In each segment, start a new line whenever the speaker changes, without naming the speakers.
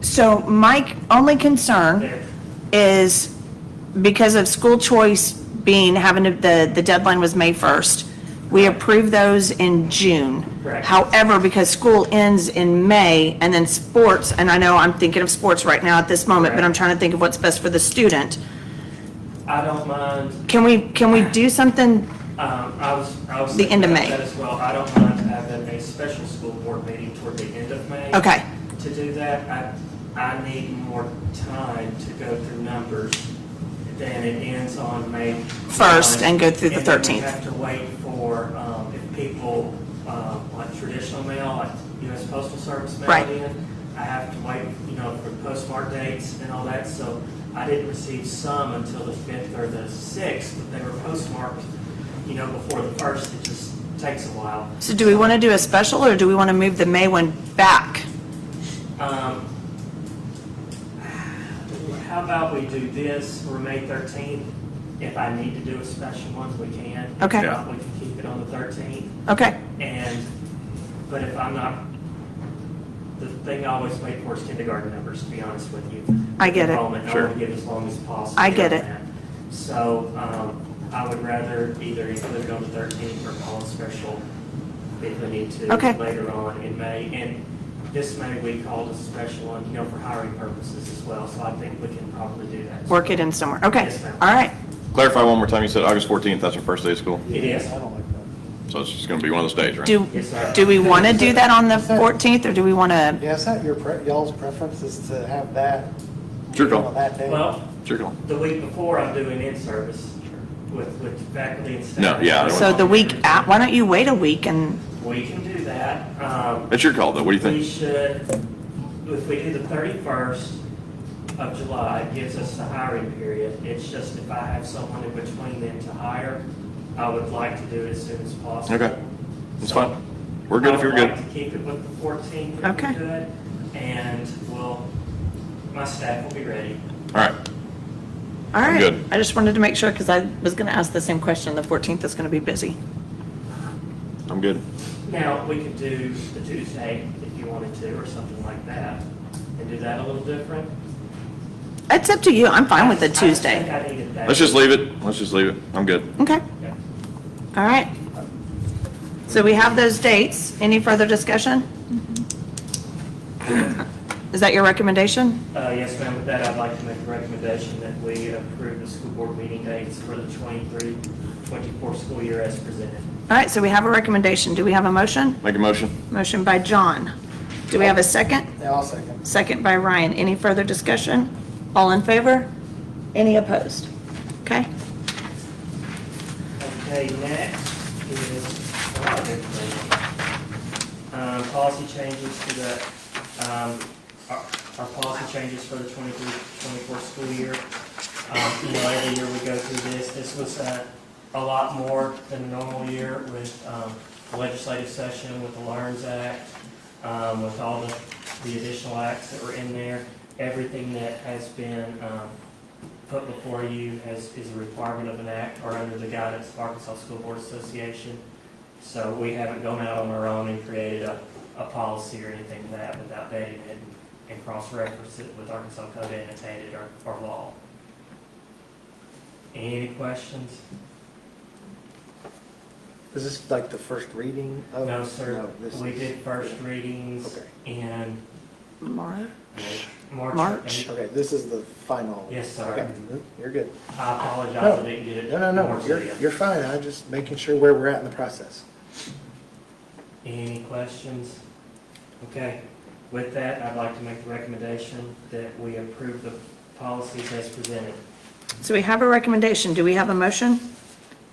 So my only concern is because of school choice being, having, to- the, the deadline was May 1st. We approved those in June.
Correct.
However, because school ends in May and then sports, and I know I'm thinking of sports right now at this moment, but I'm
Correct.
trying to think of what's best for the student.
I don't mind,
Can we, can we do something?
um, I was, I was.
The end of
thinking
May.
about that As well, I don't mind having a special school board meeting toward the end of May.
Okay,
To do that, I, I need more time to go through numbers than it ends on May.
First, and go through the
And then we
13th.
have to wait for, um, if people, um, like traditional mail, like US Postal Service mail
Right.
in, I have to wait, you know, for postmark dates and all that, so I didn't receive some until the fifth or the sixth, but they were postmarked, you know, before the first, it just takes a while.
so do we want to do a special or do we want to move the May one back?
Um, How about we do this for May 13th? If I need to do a special one, we can. If
Okay.
not, We can keep it on the 13th.
Okay,
And, but if I'm not, the thing I always wait for is kindergarten numbers, to be honest with you.
I get it.
Enrollment, I
Sure.
want to get as long as possible.
I get
on
it.
that. So um, I would rather either include it on the 13th or call it special if we need to
Okay.
later on in May. And this May, we called a special one, you know, for hiring purposes as well, so I think we can probably do that. as
work
well.
it in somewhere. Okay,
Yes, ma'am.
all right.
Clarify one more time, you said August 14th, that's our first day of school,
It is.
so it's just going to be one of those days, right?
Do,
Yes, sir.
do we want to do that on the
Yes, sir.
14th, or do we want to,
Yeah, is that your, pre- y'all's preference is to have that?
Sure, Tom.
on That day?
Well,
It's your call.
the week before, I'm doing in-service with, with faculty and staff.
No, yeah, I don't
so the week, at- why don't you wait a week and,
We can do that. Um,
It's your call, though, what do you
We
think?
should, if we do the 31st of July, it gives us the hiring period. It's just if I have someone in between then to hire, I would like to do it as soon as possible.
Okay, It's fine, we're good if you're
I would
good.
like to keep it with the 14th if
Okay.
we could, and we'll, my staff will be ready.
All right,
all
I'm
right.
good.
I just wanted to make sure, because I was going to ask the same question, the 14th is going to be busy.
I'm good.
Now, we could do the Tuesday if you wanted to, or something like that, and do that a little different.
It's up to you, I'm fine with the
I just think
Tuesday.
I needed that.
Let's just leave it, let's just leave it, I'm good.
Okay,
Yeah.
all right. So we have those dates, any further discussion? Is that your recommendation?
Uh, Yes, ma'am, with that, I'd like to make a recommendation that we approve the school board meeting dates for the 23, 24 school year as presented.
All right, so we have a recommendation, do we have a motion?
Make a motion?
Motion by John. Do we have a second?
Yeah, I'll second.
Second by Ryan. Any further discussion? All in favor? Any opposed? Okay.
Okay, next is, a lot of information. Um, policy changes to the, um, our, our policy changes for the 23, 24 school year. Um, you know, every year we go through this, this was a, a lot more than a normal year with, um, the legislative session, with the LARNS Act, um, with all the, the additional acts that were in there. Everything that has been, um, put before you as, is a requirement of an act or under the guidance of Arkansas School Board Association. So we haven't gone out on our own and created a, a policy or anything like that without dating it and cross-reference it with Arkansas Code annotated or, or law. Any questions?
Is this like the first reading of?
No, sir.
Oh, No, this
We
is-
did first readings
Okay.
in
Laura?
March.
March.
Okay, this is the final.
Yes,
Okay,
sir.
You're good.
I apologize, I
No.
didn't get it.
No, no, no,
more to
you're,
you.
you're fine. I'm just making sure where we're at in the process.
Any questions? Okay, with that, I'd like to make the recommendation that we approve the policies as presented.
So we have a recommendation. Do we have a motion?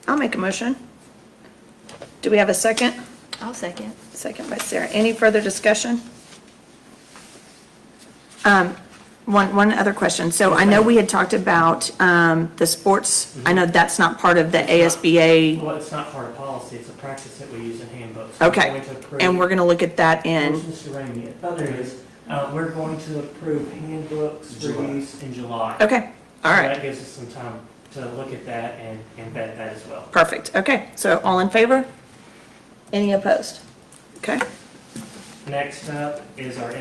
I'll make a motion. Do we have a second?
I'll second.
Second by Sarah. Any further discussion? Um, One, one other question. So I know we had talked about um, the sports. I know that's not part of the ASBA.
Well, it's not part of policy, it's a practice that we use in handbooks.
Okay. And we're going to look at that in,
Mr. Ramey, oh, there it is. Uh, we're going to approve handbooks for use in July.
okay, all
So
right.
That gives us some time to look at that and, and vet that as well.
Perfect, okay, so all in favor? Any opposed? Okay.
Next up is our